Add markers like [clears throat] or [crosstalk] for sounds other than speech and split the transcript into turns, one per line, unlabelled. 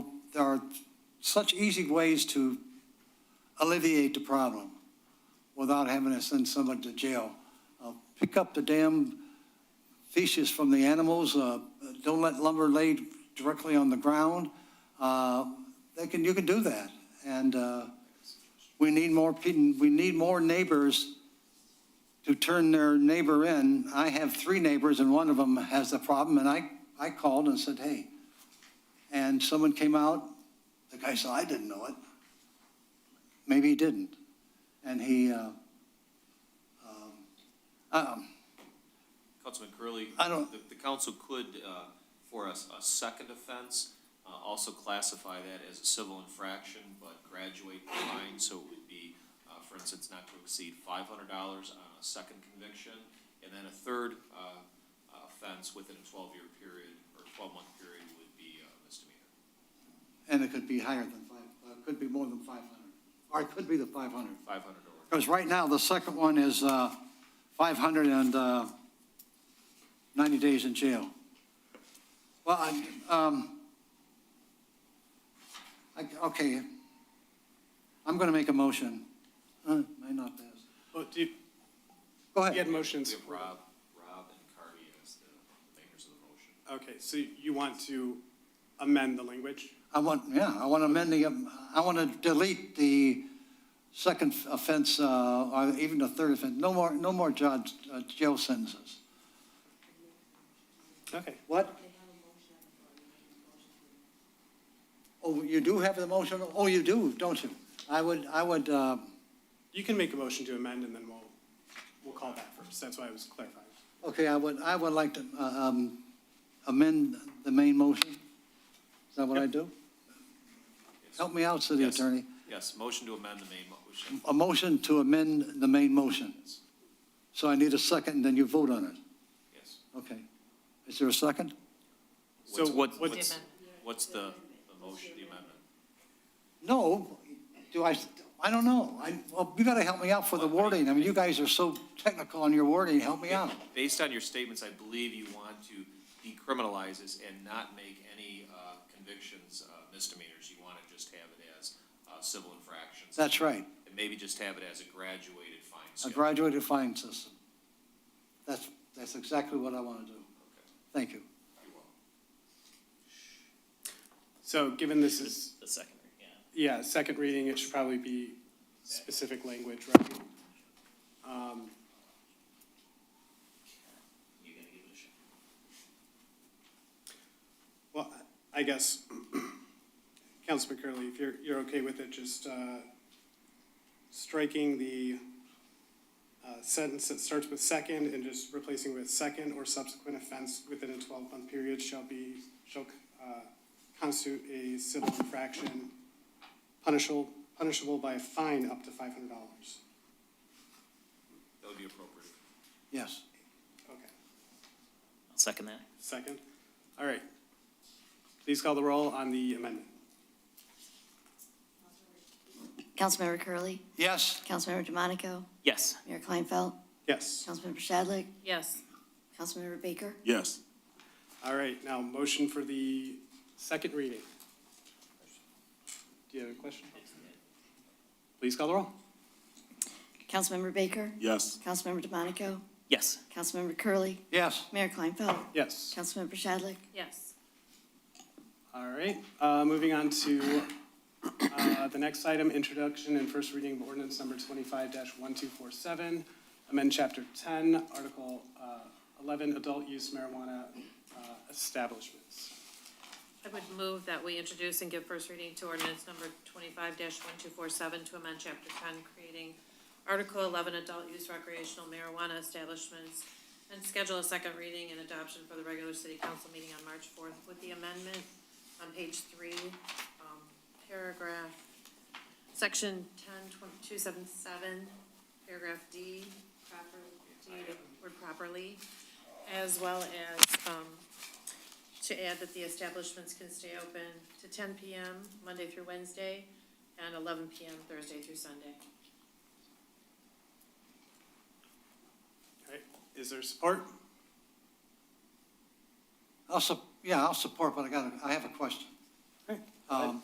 there are such easy ways to alleviate the problem without having to send somebody to jail. Uh, Pick up the damn feces from the animals, uh, don't let lumber lay directly on the ground. Uh, They can, you can do that. And uh, we need more, peo- we need more neighbors to turn their neighbor in. I have three neighbors and one of them has a problem and I, I called and said, hey. And someone came out, the guy said, I didn't know it. Maybe he didn't. And he, uh, um, um,
Councilman Curley,
I don't-
the, the council could, uh, for a, a second offense, uh, also classify that as a civil infraction, but graduate the fine, so it would be, uh, for instance, not to exceed five hundred dollars on a second conviction, and then a third, uh, uh, offense within a twelve-year period, or twelve-month period would be uh, a misdemeanor.
And it could be higher than five, uh, could be more than five hundred, or it could be the five hundred.
Five hundred or,
Because right now, the second one is, uh, five hundred and, uh, ninety days in jail. Well, I, um, I, okay, I'm gonna make a motion. Uh, may not pass.
Well, Oh, do you,
Go
you had
ahead.
we
motions.
have Rob, Rob and Carney as the makers of the motion.
Okay, so you want to amend the language?
I want, yeah, I want to amend the, um, I want to delete the second offense, uh, or even the third offense. No more, no more judge, uh, jail sentences.
Okay.
What? Oh, you do have the motion? Oh, you do, don't you? I would, I would, uh,
You can make a motion to amend and then we'll, we'll call that first. That's why I was clarifying.
okay, I would, I would like to uh, um, amend the main motion. Is that what I do? Help me out, city
Yes.
attorney.
Yes, motion to amend the main motion.
A motion to amend the main motion. So I need a second, and then you vote on it.
Yes.
Okay. Is there a second?
So
What's, what's,
what's-
what's- what's the, the motion, the amendment?
No, do I, I don't know. I, well, you gotta help me out for the wording. I mean, you guys are so technical on your wording, help me out.
Based on your statements, I believe you want to decriminalize this and not make any uh, convictions uh, misdemeanors. You want to just have it as uh, civil infractions.
That's right,
And maybe just have it as a graduated fine
a
schedule.
graduated fine system. That's, that's exactly what I wanna do. Thank you.
You're welcome.
So given this is,
The second, yeah.
yeah, second reading, it should probably be specific language, right? Um,
You gotta give it a shot.
Well, I guess, [clears throat] Councilman Curley, if you're, you're okay with it, just uh, striking the uh, sentence that starts with second and just replacing with second or subsequent offense within a 12-month period shall be, shall uh, constitute a civil infraction punishable, punishable by a fine up to $500.
That would be appropriate.
Yes.
Okay,
I'll second that.
second. All right. Please call the roll on the amendment.
Councilmember Curley,
Yes,
Councilmember DeMonico,
Yes.
Mayor Kleinfeld,
Yes.
Councilmember Shadlick,
Yes,
Councilmember Baker,
Yes.
All right, now motion for the second reading. Do you have a question? Please call the roll.
Councilmember Baker,
Yes.
Councilmember DeMonico,
Yes.
Councilmember Curley,
yes,
Mayor Kleinfeld,
Yes.
Councilmember Shadlick,
yes.
All right, uh, moving on to, uh, the next item, introduction and first reading of ordinance number twenty-five one two four seven. Amend chapter ten, article, uh, eleven, adult use marijuana, uh, establishments.
I would move that we introduce and give first reading to ordinance number twenty-five one two four seven to amend chapter ten, creating article eleven, adult use recreational marijuana establishments, and schedule a second reading and adoption for the regular city council meeting on March fourth with the amendment on page three, um, paragraph, section ten tw- two seven seven, paragraph D, proper, D, word properly, as well as, um, to add that the establishments can stay open to ten PM Monday through Wednesday and eleven PM Thursday through Sunday.
All right, is there support?
I'll, sup- yeah, I'll support, but I got, I have a question.